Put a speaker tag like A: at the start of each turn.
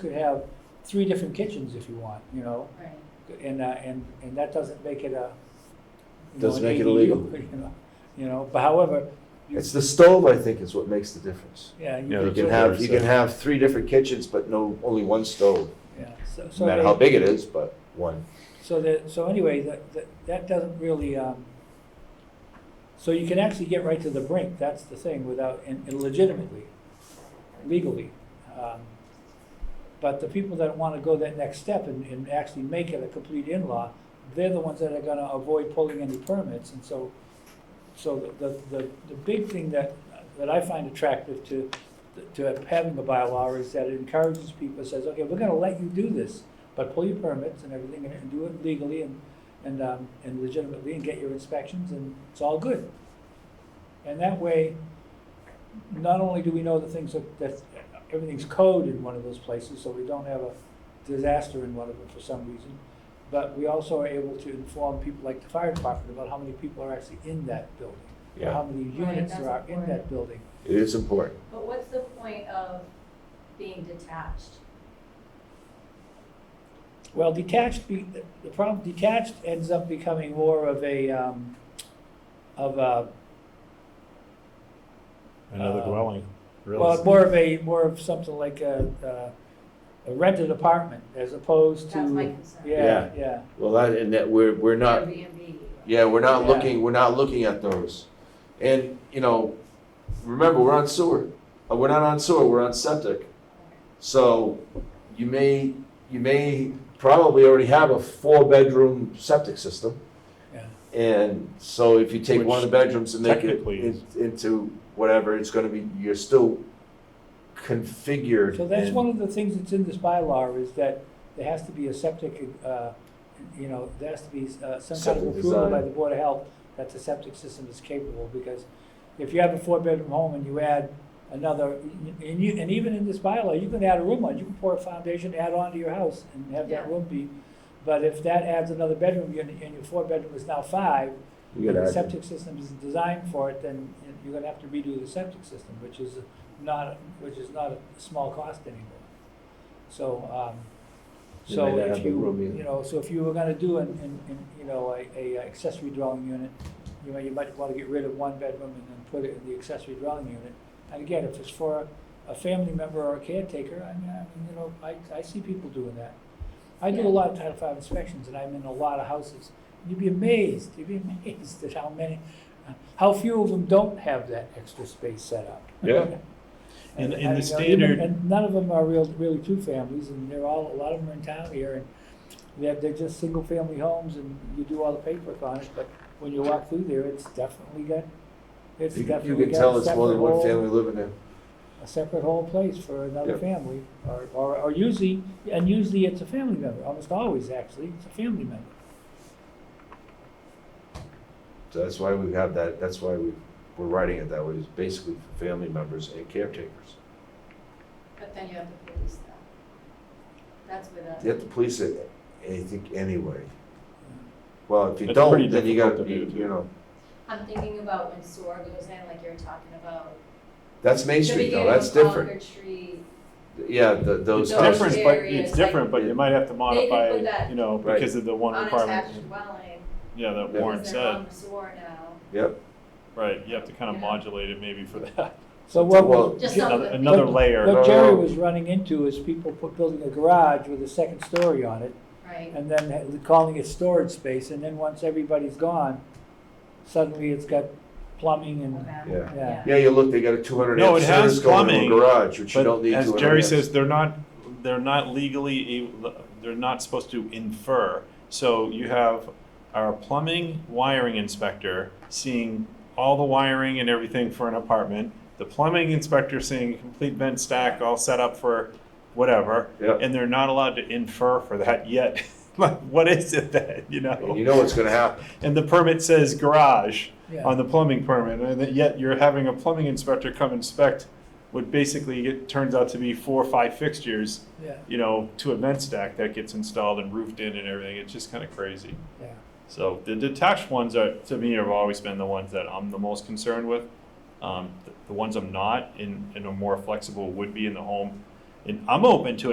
A: could have three different kitchens if you want, you know,
B: Right,
A: and, uh, and, and that doesn't make it a. you know,
C: Doesn't
A: an
C: make it
A: ADU,
C: illegal.
A: You know, you know, but however,
C: It's the stove, I think, is what makes the difference.
A: yeah. you could
C: You
D: Yeah, that's
C: can
D: what
A: sort
D: I
A: of-
C: have, you can have three different kitchens, but no, only one stove,
A: Yeah, so, so.
C: no matter
A: they-
C: how big it is, but one.
A: So that, so anyway, that, that, that doesn't really, um, so you can actually get right to the brink, that's the thing, without, and and legitimately, legally. Um, But the people that wanna go that next step and, and actually make it a complete in-law, they're the ones that are gonna avoid pulling any permits, and so, so the- the, the, the big thing that, that I find attractive to, to having a bylaw is that it encourages people, says, okay, we're gonna let you do this, but pull your permits and everything and- and do it legally and, and, um, and legitimately and get your inspections and it's all good. And that way, not only do we know the things that, that, everything's code in one of those places, so we don't have a disaster in one of them for some reason, but we also are able to inform people like the fire department about how many people are actually in that building. or How
C: Yeah,
A: many
B: Right,
A: units there are
B: that's
A: in that
B: important.
A: building.
C: it is important.
B: but what's the point of being detached?
A: Well, detached, be, the problem, detached ends up becoming more of a, um, of a,
D: Another
A: Uh,
D: dwelling, really.
A: well, more of a, more of something like a, uh, a rented apartment as opposed to.
B: That's my concern.
A: Yeah, yeah,
C: Well, that, and that, we're, we're not,
B: Airbnb.
C: yeah, we're not
A: Yeah.
C: looking, we're not looking at those. And, you know, remember, we're on sewer. Uh, We're not on sewer, we're on septic. So you may, you may probably already have a four-bedroom septic system.
A: yeah.
C: And so if you take one of the bedrooms and make it
D: Technically
C: in- into whatever, it's gonna be, you're still configured.
A: So that's
C: and-
A: one of the things that's in this bylaw is that there has to be a septic, uh, you know, there has to be uh, some kind
C: Septic
A: of approval
C: design.
A: by the Board of Health that the septic system is capable, because if you have a four-bedroom home and you add another, and you, and even in this bylaw, you can add a room on, you can pour a foundation, add on to your house and have that
B: Yeah.
A: room be, but if that adds another bedroom, your- and your four-bedroom is now five, and
C: You gotta
A: the
C: add-
A: septic system isn't designed for it, then you're gonna have to redo the septic system, which is not, which is not a small cost anymore. So, um,
C: You
A: so
C: may not
A: if
C: have the room
A: you,
C: either.
A: you know, so if you were gonna do an, an, an, you know, a, a accessory dwelling unit, you know, you might wanna get rid of one bedroom and then put it in the accessory dwelling unit. And again, if it's for a family member or a caretaker, I mean, I mean, you know, I, I see people doing that. I do a
B: Yeah.
A: lot of Title Five inspections, and I'm in a lot of houses. You'd be amazed, you'd be amazed at how many, how few of them don't have that extra space set up.
D: Yeah. And- and the
A: you know,
D: standard-
A: even- And none of them are real, really two families, and they're all, a lot of them are in town here, and they're, they're just single-family homes, and you do all the paperwork on it, but when you walk through there, it's definitely got, it's
C: You you
A: definitely
C: can
A: got
C: tell
A: a
C: it's more
A: separate
C: than one
A: whole,
C: family living there.
A: a separate whole place for another
C: Yep.
A: family, or, or, or usually, and usually it's a family member, almost always, actually, it's a family member.
C: So that's why we have that, that's why we, we're writing it that way, is basically for family members and caretakers.
B: But then you have to police that. That's where that.
C: You have to police it, I think, anyway.
A: Yeah.
C: Well, if you
D: It's pretty
C: don't, then you
D: difficult
C: gotta,
D: to
C: you
D: do,
C: you know,
B: I'm thinking about when SOAR goes in, like you're talking about.
C: that's Main
B: the
C: Street though,
B: beginning
C: that's
B: of
C: different.
B: Concord Street,
C: Yeah, the,
B: Those
C: those
D: It's
C: houses.
D: different, but
B: areas,
D: it's different, but
C: like-
D: you might have to modify,
B: put that-
D: you know,
C: Right.
D: because of the one
B: unattached
D: requirement.
B: dwelling,
D: Yeah, that
C: Yeah.
D: Warren
B: because they're
D: said,
B: on the SOAR now.
C: Yep,
D: right, you have to kind
B: Yeah.
D: of modulate it maybe for that.
A: So what
C: Well-
A: was,
B: Just
A: Jer-
B: some of
D: Another,
B: the-
D: another
A: But-
D: layer,
A: what
C: No,
A: Jerry
C: no.
A: was running into is people put, building a garage with a second story on it,
B: Right,
A: and then ha- calling it storage space, and then once everybody's gone, suddenly it's got plumbing
B: Okay.
A: and,
C: Yeah.
A: Yeah.
C: yeah, you look, they got a two hundred
D: No,
C: amp
D: it has
C: service going in
D: plumbing,
C: a garage, which you don't
D: but
C: need
D: as
C: 200
D: Jerry
C: amps.
D: says, they're not, they're not legally, able- they're not supposed to infer. So you have our plumbing wiring inspector seeing all the wiring and everything for an apartment. The plumbing inspector seeing a complete vent stack all set up for whatever.
C: Yep.
D: And they're not allowed to infer for that yet. Like, what is it that, you
C: And you
D: know?
C: know what's gonna happen.
D: And the permit says garage on
A: yeah.
D: the plumbing permit, and that yet you're having a plumbing inspector come inspect what basically it turns out to be four or five fixtures,
A: Yeah,
D: you know, to a vent stack that gets installed and roofed in and everything. It's just kind of crazy.
A: yeah.
D: So the detached ones are, to me, have always been the ones that I'm the most concerned with. Um, the, the ones I'm not in, in a more flexible would be in the home. And I'm open to